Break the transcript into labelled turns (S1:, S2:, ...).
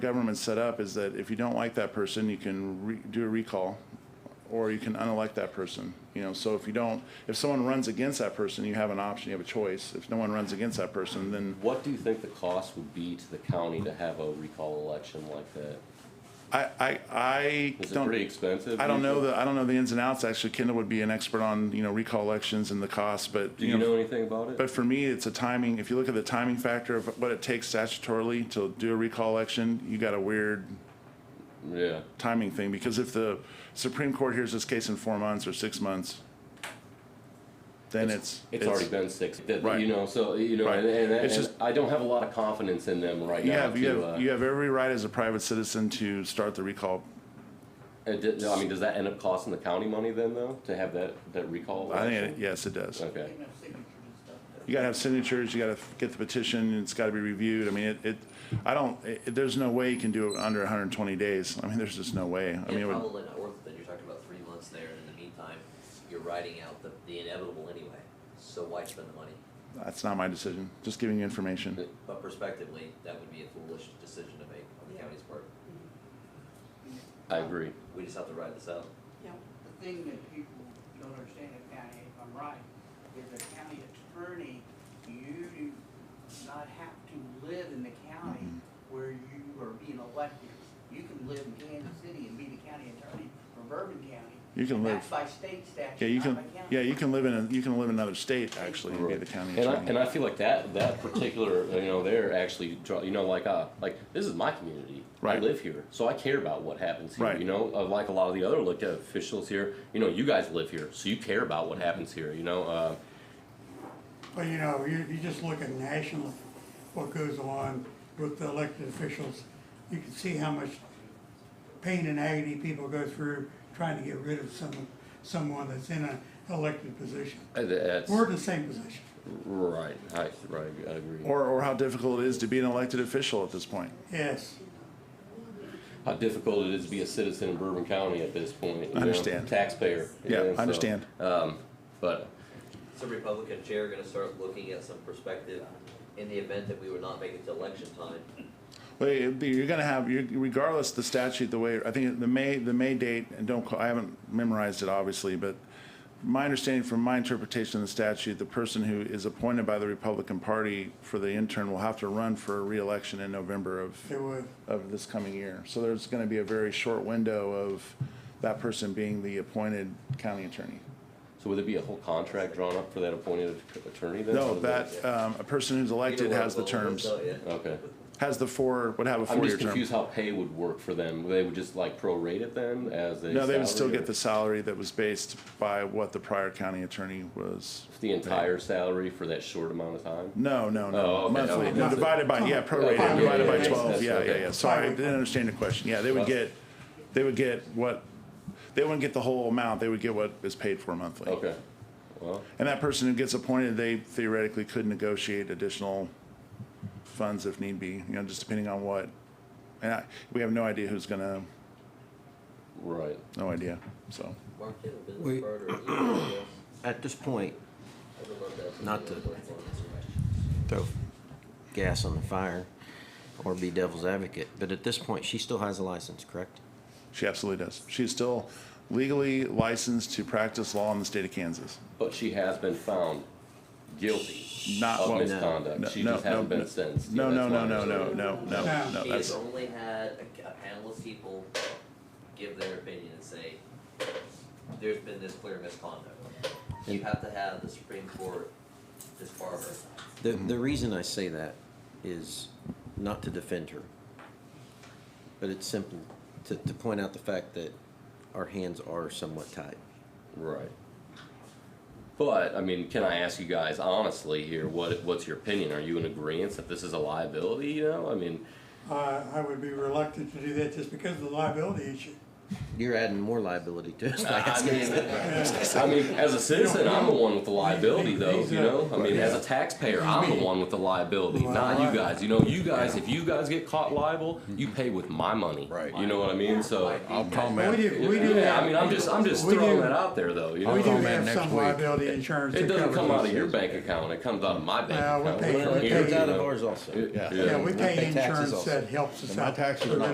S1: government's set up is that if you don't like that person, you can re- do a recall, or you can unelect that person, you know, so if you don't, if someone runs against that person, you have an option, you have a choice. If no one runs against that person, then
S2: What do you think the cost would be to the county to have a recall election like that?
S1: I, I, I
S2: Is it
S1: don't.
S2: pretty expensive?
S1: I don't know
S2: usually?
S1: the, I don't know the ins and outs. Actually, Kendall would be an expert on, you know, recall elections and the costs, but.
S2: Do you know anything about it?
S1: But for me, it's a timing, if you look at the timing factor of what it takes statutorily to do a recall election, you got a weird
S2: Yeah,
S1: timing thing, because if the Supreme Court hears this case in four months or six months, then it's.
S2: it's already been six, that-
S1: Right.
S2: you know, so, you know,
S1: Right.
S2: and, and,
S1: It's
S2: and
S1: just-
S2: I don't have a lot of confidence in them right
S1: You
S2: now
S1: have, you
S2: to,
S1: have,
S2: uh,
S1: you have every right as a private citizen to start the recall.
S2: uh, d- I mean, does that end up costing the county money then though, to have that, that recall
S1: I
S2: election?
S1: think, it- yes, it does.
S2: Okay,
S1: You gotta have signatures, you gotta get the petition, and it's gotta be reviewed. I mean, it, it, I don't, it, there's no way you can do it under hundred and twenty days. I mean, there's just no way. I
S3: Yeah,
S1: mean, it would-
S3: probably not worth it, then you're talking about three months there, and in the meantime, you're riding out the, the inevitable anyway, so why spend the money?
S1: that's not my decision. Just giving you information.
S3: But prospectively, that would be a foolish decision to make on the county's part,
S2: I agree.
S3: we just have to ride this out.
S4: Yeah, the thing that people don't understand in county, if I'm right, is a county attorney, you do not have to live in the county
S1: Mm-hmm.
S4: where you are being elected. You can live in Kansas City and be the county attorney for Bourbon County.
S1: You can
S4: And
S1: live-
S4: That's by state
S1: Yeah, you
S4: statute, not
S1: can,
S4: by county.
S1: yeah, you can live in, a- you can live in another state, actually, and be the county
S2: And I, and
S1: attorney.
S2: I feel like that, that particular, you know, they're actually, draw- you know, like, uh, like, this is my community. I
S1: Right.
S2: live here, so I care about what happens here,
S1: Right.
S2: you know, Uh, like a lot of the other elected officials here, you know, you guys live here, so you care about what happens here, you know, uh,
S5: Well, you know, you, you just look at national, what goes on with the elected officials. You can see how much pain and agony people go through trying to get rid of some, someone that's in an elected position.
S2: that's,
S5: We're in the same position.
S2: right, I, right, I agree.
S1: Or, or how difficult it is to be an elected official at this point.
S5: Yes,
S2: How difficult it is to be a citizen in Bourbon County at this point, you know,
S1: Understand.
S2: taxpayer. you
S1: Yeah,
S2: know,
S1: I
S2: so,
S1: understand.
S2: Um, but,
S3: Is the Republican chair gonna start looking at some perspective in the event that we would not make it to election time?
S1: But it'd be- you're gonna have, you're- regardless the statute, the way, I think the May, the May date, and don't, quote- I haven't memorized it, obviously, but my understanding from my interpretation of the statute, the person who is appointed by the Republican Party for the intern will have to run for reelection in November of,
S5: they would.
S1: of this coming year. So there's gonna be a very short window of that person being the appointed county attorney.
S2: so would there be a whole contract drawn up for that appointed attorney then? Or
S1: No,
S2: is
S1: that, um, a person who's elected has the terms,
S2: Okay.
S1: has the four, would have a
S2: I'm
S1: four-year
S2: just
S1: term.
S2: confused how pay would work for them. They would just like prorate it then as a
S1: No, they would still
S2: salary,
S1: get
S2: or
S1: the salary that was based by what the prior county attorney was.
S2: the entire salary for that short amount of time.
S1: No, no,
S2: Oh,
S1: no,
S2: okay,
S1: monthly,
S2: okay.
S1: no, divided by, yeah,
S2: Okay,
S1: prorated,
S2: yeah,
S1: divided
S2: yeah,
S1: by
S2: yeah,
S1: twelve,
S2: that's-
S1: yeah, yeah,
S2: okay.
S1: yeah, sorry, I didn't understand your question, yeah, they would get, they would get what, they wouldn't get the whole amount, they would get what is paid for monthly.
S2: Okay. Well,
S1: And that person who gets appointed, they theoretically could negotiate additional funds if need be, you know, just depending on what. And I, we have no idea who's gonna,
S2: right.
S1: no idea, so.
S3: Mark, you have a business
S6: Wait.
S3: card or an email address?
S6: At this point,
S3: I would love to have some
S6: Not
S3: data
S6: to-
S3: going forward.
S6: throw gas on the fire or be devil's advocate, but at this point, she still has a license, correct?
S1: She absolutely does. She's still legally licensed to practice law in the state of Kansas.
S2: But she has been found guilty
S1: Not
S2: of
S1: well,
S2: misconduct.
S1: no,
S2: she
S1: no,
S2: just
S1: no,
S2: hasn't
S1: no.
S2: been sentenced.
S1: No, no,
S2: Yeah, that's
S1: no,
S2: my
S1: no, no,
S2: understanding.
S1: no, no,
S5: No.
S1: no.
S3: She has
S1: That's
S3: only had a, a panel of people give their opinion and say, there's been this clear misconduct. You
S6: And-
S3: have to have the Supreme Court disbar her.
S6: The, the reason I say that is not to defend her, but it's simple, to, to point out the fact that our hands are somewhat tied.
S2: Right. But I mean, can I ask you guys honestly here? What what's your opinion? Are you in agreement that this is a liability? You know, I mean,
S5: I, I would be reluctant to do that just because of the liability issue.
S6: You're adding more liability to us by
S2: I
S6: asking
S2: mean,
S6: us that.
S5: Uh,
S2: I mean, as a citizen, I'm the one with the liability, though.
S5: He's
S2: You
S5: not-
S2: know, I mean, as a taxpayer, I'm the one with the liability, not you guys. You know, you guys, if you guys get caught liable, you pay with my money.
S7: Right.
S2: You know what I mean? So.
S7: I'll call
S5: But
S7: Matt.
S5: we do, we do.
S2: Oh, Yeah,
S5: have-
S2: I mean, I'm just, Oh, I'm just
S5: we
S2: throwing
S5: do-
S2: that out there, though. You
S5: We do
S2: know,
S7: Matt
S5: have
S7: next
S5: some
S7: week.
S5: liability insurance.
S2: it
S5: that
S2: doesn't
S5: covers
S2: come out
S5: these
S2: of your
S5: things.
S2: bank account. It comes out of my bank
S5: Well, we
S2: account.
S5: pay-
S2: From
S5: we
S2: here,
S5: pay-
S6: It's
S2: you
S6: out of
S2: know.
S6: ours also.
S2: Yeah.
S5: Yeah, we
S6: We pay
S5: pay
S6: taxes
S5: insurance
S6: also.
S5: that helps us
S7: And my
S5: out.
S7: taxes are not